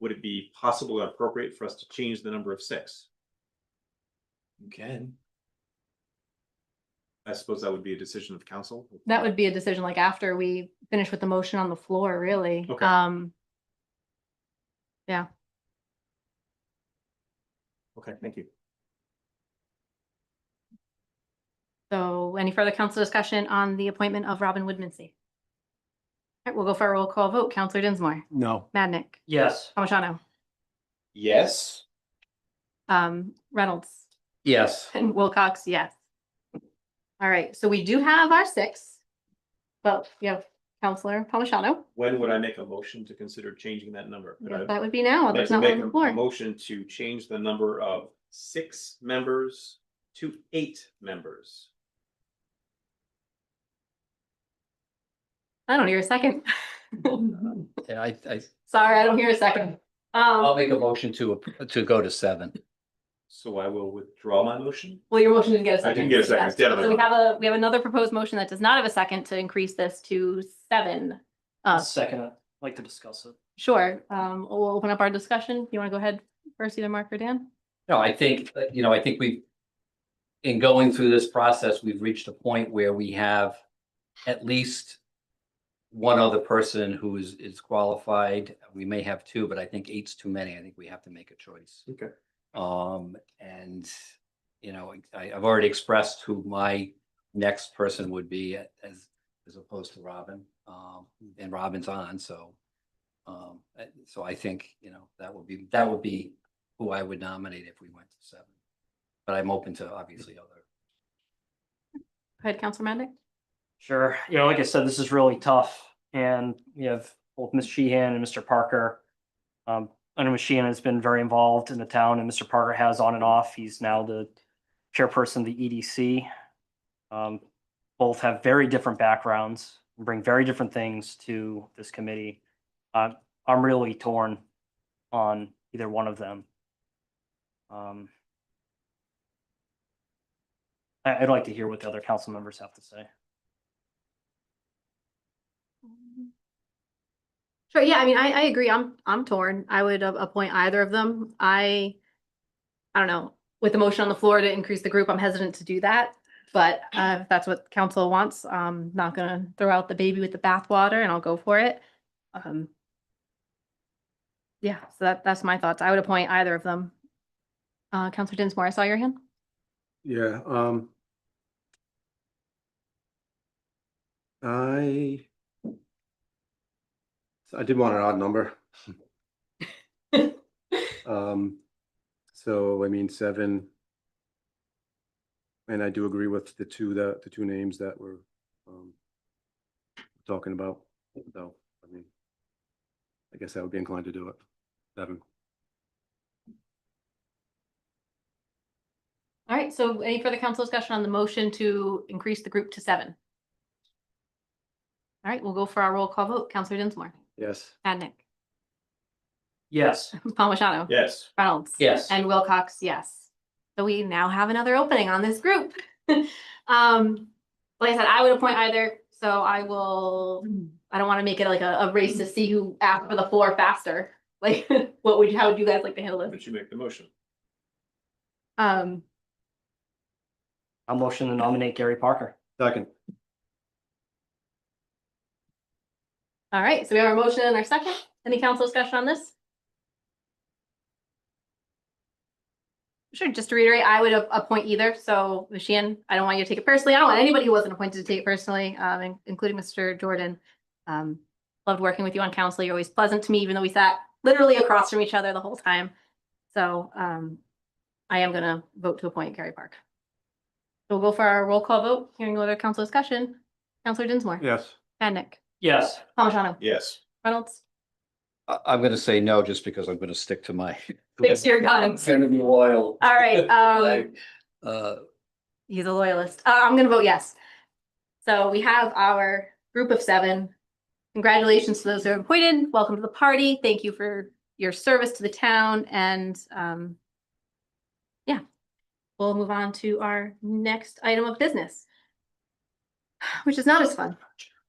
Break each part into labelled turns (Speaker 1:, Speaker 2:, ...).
Speaker 1: would it be possible or appropriate for us to change the number of six?
Speaker 2: You can.
Speaker 1: I suppose that would be a decision of council.
Speaker 3: That would be a decision like after we finish with the motion on the floor, really.
Speaker 1: Okay.
Speaker 3: Um,
Speaker 1: Okay, thank you.
Speaker 3: so any further council discussion on the appointment of Robin Woodmansee? All right, we'll go for a roll call vote. Counselor Dinsmore,
Speaker 4: No.
Speaker 3: Madnick,
Speaker 2: Yes.
Speaker 3: Palmigano,
Speaker 2: Yes.
Speaker 3: um, Reynolds,
Speaker 2: Yes.
Speaker 3: and Wilcox, yes. All right, so we do have our six. But we have Counselor Palmigano.
Speaker 1: When would I make a motion to consider changing that number? Could I-
Speaker 3: That would be now.
Speaker 1: I'd like
Speaker 3: There's
Speaker 1: to
Speaker 3: not one
Speaker 1: make
Speaker 3: on
Speaker 1: a
Speaker 3: the
Speaker 1: a
Speaker 3: floor.
Speaker 1: motion to change the number of six members to eight members.
Speaker 3: I don't hear a second.
Speaker 5: Yeah, I, I,
Speaker 3: Sorry, I don't hear a second.
Speaker 5: I'll
Speaker 3: Um,
Speaker 5: make a motion to, to go to seven.
Speaker 1: So I will withdraw my motion.
Speaker 3: well, your motion didn't get a second.
Speaker 1: I didn't get a second, it's the other
Speaker 3: So we
Speaker 1: one.
Speaker 3: have a, we have another proposed motion that does not have a second to increase this to seven. Uh,
Speaker 2: Second, I'd like to discuss it.
Speaker 3: sure, um, we'll open up our discussion. You want to go ahead first, either Mark or Dan?
Speaker 5: No, I think, uh, you know, I think we, in going through this process, we've reached a point where we have at least one other person who is, is qualified. We may have two, but I think eight's too many. I think we have to make a choice.
Speaker 1: Okay.
Speaker 5: Um, and, you know, I, I've already expressed who my next person would be as, as opposed to Robin. Um, and Robin's on, so. Um, uh, so I think, you know, that would be, that would be who I would nominate if we went to seven. But I'm open to obviously other.
Speaker 3: Go ahead, Counselor Madnick.
Speaker 2: Sure. You know, like I said, this is really tough and we have both Ms. Sheehan and Mr. Parker. Um, I know Ms. Sheehan has been very involved in the town and Mr. Parker has on and off. He's now the chairperson of the EDC. Um, both have very different backgrounds, and bring very different things to this committee. Uh, I'm really torn on either one of them. Um, I, I'd like to hear what the other council members have to say.
Speaker 3: Sure, yeah, I mean, I, I agree. I'm, I'm torn. I would a- appoint either of them. I, I don't know, with the motion on the floor to increase the group, I'm hesitant to do that. But uh, if that's what council wants, I'm not gonna throw out the baby with the bathwater and I'll go for it. Um, Yeah, so that, that's my thoughts. I would appoint either of them. Uh, Counselor Dinsmore, I saw your hand.
Speaker 4: Yeah, um. I. so I did want an odd number. Um, so I mean, seven. And I do agree with the two that, the two names that we're, um. Talking about, though, I mean. I guess I would be inclined to do it, seven.
Speaker 3: All right, so any further council discussion on the motion to increase the group to seven? All right, we'll go for our roll call vote. Counselor Dinsmore,
Speaker 4: Yes.
Speaker 3: Adnick,
Speaker 2: Yes.
Speaker 3: Palmigano,
Speaker 1: Yes.
Speaker 3: Reynolds.
Speaker 5: Yes.
Speaker 3: And Wilcox, yes. So we now have another opening on this group. Um, like I said, I would appoint either, so I will, I don't want to make it like a, a race to see who asked for the floor faster. Like, what would, how would you guys like to handle this?
Speaker 1: But you make the motion.
Speaker 3: Um,
Speaker 2: I'll motion to nominate Gary Parker.
Speaker 4: Second.
Speaker 3: all right, so we have our motion and our second. Any council discussion on this? Sure, just to reiterate, I would a- appoint either, so Ms. Sheehan, I don't want you to take it personally, I don't want anybody who wasn't appointed to take it personally, um, in- including Mr. Jordan. Um, loved working with you on council, you're always pleasant to me, even though we sat literally across from each other the whole time. So, um, I am gonna vote to appoint Gary Park. So We'll go for our roll call vote, hearing no other council discussion. Counselor Dinsmore.
Speaker 4: Yes.
Speaker 3: Madnick.
Speaker 2: Yes.
Speaker 3: Palmigano.
Speaker 1: Yes.
Speaker 3: Reynolds.
Speaker 5: I, I'm gonna say no, just because I'm gonna stick to my.
Speaker 3: Fix your
Speaker 5: I'm
Speaker 3: guns.
Speaker 5: gonna be loyal.
Speaker 3: All right, um,
Speaker 5: Uh,
Speaker 3: he's a loyalist. Uh, I'm gonna vote yes. So we have our group of seven. Congratulations to those who are appointed. Welcome to the party. Thank you for your service to the town and, um, yeah, we'll move on to our next item of business, which is not as fun.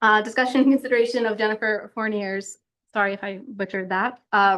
Speaker 3: Uh, discussion and consideration of Jennifer Fournier's, sorry if I butchered that, uh,